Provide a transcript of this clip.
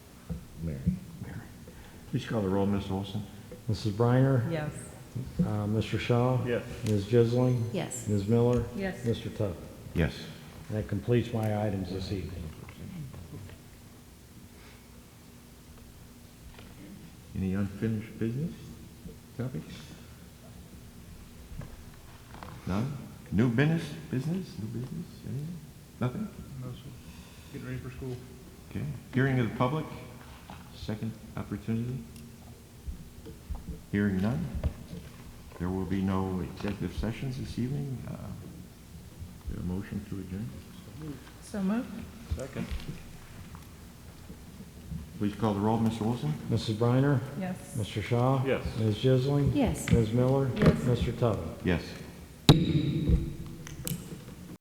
Please call the roll, Ms. Olson. Mrs. Briner? Yes. Uh, Mr. Shaw? Yes. Ms. Jisling? Yes. Ms. Miller? Yes. Mr. Tuck? Yes. And that completes my items this evening. Any unfinished business topics? None? New business, business, new business, anything? Nothing? No, sir. Getting ready for school. Okay. Hearing of the public, second opportunity. Hearing none. There will be no executive sessions this evening. Uh, is there A motion to adjourn. So moved? Second. Please call the roll, Mr. Olson. Mrs. Briner? Yes. Mr. Shaw? Yes. Ms. Jisling? Yes. Ms. Miller? Yes. Mr. Tuck? Yes.